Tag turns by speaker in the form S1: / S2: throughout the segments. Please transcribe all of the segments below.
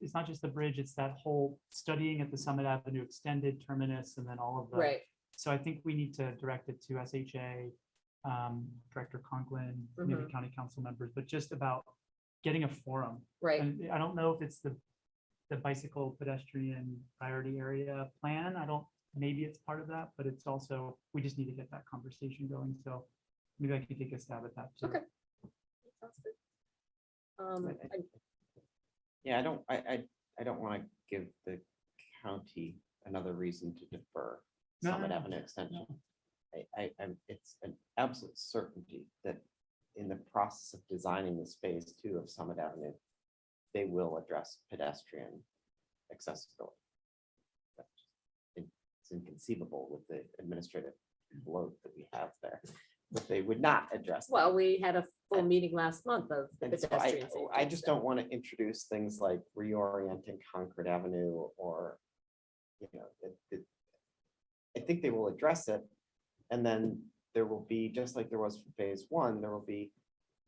S1: it's not just the bridge, it's that whole studying at the Summit Avenue extended terminus and then all of the.
S2: Right,
S1: So I think we need to direct it to SHA, um, Director Conklin, maybe
S2: Mhm.
S1: county council members, but just about getting a forum.
S2: right,
S1: And I don't know if it's the, the bicycle pedestrian priority area plan. I don't, maybe it's part of that, but it's also, we just need to get that conversation going. So maybe I can take a stab at that. too.
S2: Okay. Sounds good. Um,
S1: Right.
S2: and-
S3: Yeah, I don't, I, I, I don't want to give the county another reason to defer
S1: No,
S3: Summit
S1: no, no.
S3: Avenue extension. I, I, I'm, it's an absolute certainty that in the process of designing the phase two of Summit Avenue, they will address pedestrian accessibility. That's just in- It's inconceivable with the administrative load that we have there, that they would not address. that.
S2: well, we had a full meeting last month of the
S3: And so I, oh,
S2: pedestrian safety.
S3: I just don't want to introduce things like reorienting Concord Avenue or, you know, it, it. I think they will address it, and then there will be, just like there was for phase one, there will be,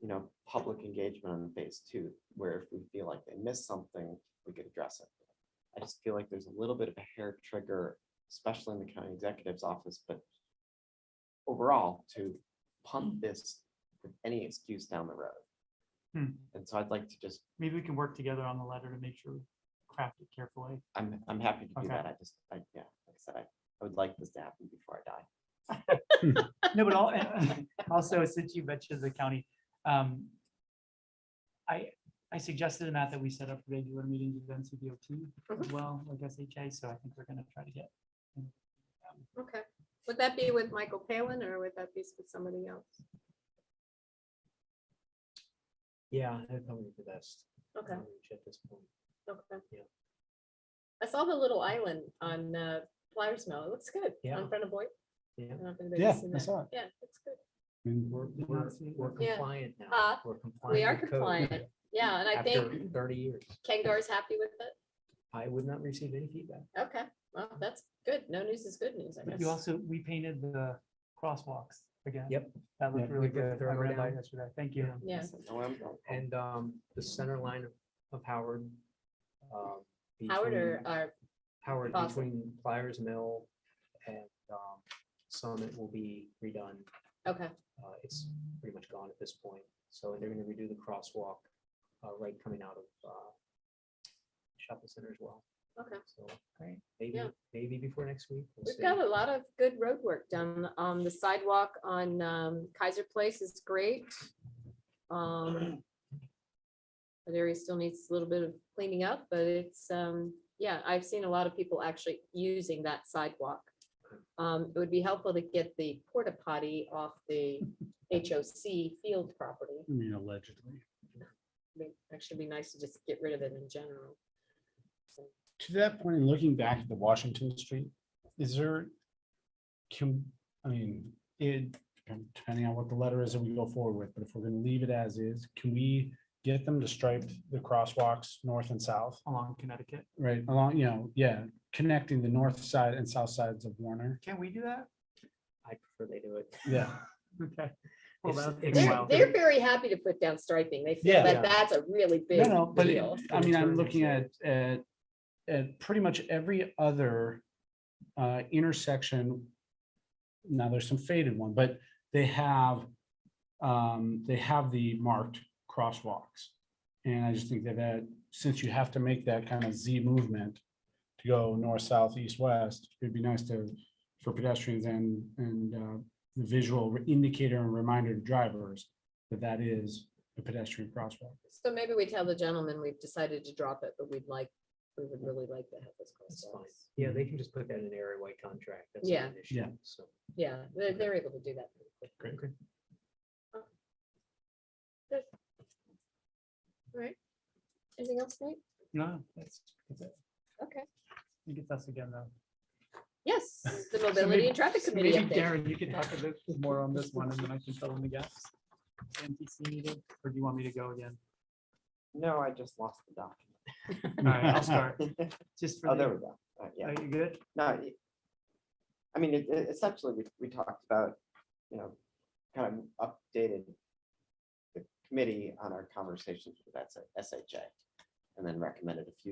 S3: you know, public engagement on phase two, where if we feel like they missed something, we could address it. I just feel like there's a little bit of a hair trigger, especially in the county executive's office, but overall, to
S2: Mm.
S3: pump this with any excuse down the road.
S1: Hmm.
S3: And so I'd like to just,
S1: Maybe we can work together on the letter to make sure we craft it carefully.
S3: I'm, I'm happy to
S1: Okay.
S3: do that. I just, I, yeah, like I said, I, I would like this to happen before I die.
S1: No, but all, also, since you mentioned the county, um, I, I suggested, Matt, that we set up regular meetings with NCDOT as well, like SHA, so I think we're gonna try to get.
S2: Okay, would that be with Michael Palin or would that be with somebody else?
S4: Yeah, that'd probably be the best.
S2: Okay,
S4: outreach At this point.
S2: okay.
S4: Yeah.
S2: I saw the little island on uh, Flyers Mill. It looks good.
S4: Yeah.
S2: In front of Boyd.
S4: Yeah.
S5: Yeah, I saw it.
S2: Yeah, it's good.
S5: I mean,
S4: We're,
S1: Did not
S4: we're,
S1: see
S4: we're
S2: Yeah.
S4: compliant now.
S2: Uh,
S4: We're
S2: We are
S4: compliant with code
S2: compliant. Yeah, and I
S4: After
S2: think
S4: thirty years,
S2: Kengar's happy with it.
S4: I would not receive any feedback.
S2: Okay, well, that's good. No news is good news, I
S1: But you
S2: guess.
S1: also, we painted the crosswalks again.
S4: Yep.
S1: That looked
S4: Yeah,
S1: really
S4: we go
S1: good. I
S4: through them
S1: read that
S4: down.
S1: yesterday. Thank you.
S4: Yeah.
S2: Yeah,
S3: I said, "No, I'm- I'll- I'll
S4: And, um, the center line of- of Howard. um,
S2: Howard or, uh,
S4: between-
S2: or,
S4: Howard
S2: Fawcett?
S4: between Flyers Mill and, um, Summit will be redone.
S2: okay,
S4: Uh, it's pretty much gone at this point. So they're gonna redo the crosswalk, uh, right coming out of, uh, shopping center as well.
S2: okay.
S4: So.
S2: Great.
S4: Maybe,
S2: Yeah.
S4: maybe before next week. we'll
S2: We've
S4: see.
S2: got a lot of good road work done. Um, the sidewalk on um, Kaiser Place is great. Um, That area still needs a little bit of cleaning up, but it's, um, yeah, I've seen a lot of people actually using that sidewalk. Um, it would be helpful to get the porta potty off the HOC field property.
S5: I mean, allegedly.
S2: I mean, Actually be nice to just get rid of it in general. So,
S5: To that point, in looking back at the Washington Street, is there, can, I mean, it, depending on what the letter is that we go forward with, but if we're gonna leave it as is, can we get them to stripe the crosswalks north and south,
S1: Along Connecticut.
S5: right, along, you know, yeah, connecting the north side and south sides of Warner?
S1: Can we do that?
S4: I prefer they do it.
S5: Yeah.
S1: Okay. Well,
S4: It's-
S1: that'll take a
S4: it's-
S2: They're,
S1: while.
S2: they're very happy to put down striping. They feel
S5: Yeah.
S2: that that's a really big
S5: No, no, but it-
S2: deal.
S5: I mean,
S4: Return
S5: I'm looking at,
S4: and
S5: at, at pretty much every other uh, intersection. Now, there's some faded one, but they have, um, they have the marked crosswalks. And I just think that that, since you have to make that kind of Z movement to go north, south, east, west, it'd be nice to, for pedestrians and, and uh, the visual indicator and reminder to drivers that that is a pedestrian crosswalk.
S2: So maybe we tell the gentleman we've decided to drop it, but we'd like, we would really like to have this
S4: That's
S2: crosswalk.
S4: fine. Yeah, they can just put that in an area white contract. That's
S2: Yeah.
S4: not an issue.
S5: Yeah.
S4: So.
S2: Yeah, they're, they're able to do that. pretty quick. Oh.
S5: Great.
S2: Anything else, Nate?
S1: No, that's, that's it.
S2: Okay,
S1: I think it's us again, though.
S2: yes, the
S1: So maybe-
S2: Mobility and Traffic
S1: so
S2: Committee
S1: Maybe
S2: update.
S1: Darren, you could talk a bit more on this one and then I can fill in the gaps. NTC meeting, or do you want me to go again?
S3: No, I just lost the document.
S1: All right, I'll start. Just for
S3: Oh, there
S1: the,
S3: we go. All right, Yeah,
S1: are you good?
S3: no. it- I mean, it, it- essentially, we, we talked about, you know, kind of updated the committee on our conversations with SHA. And then recommended a few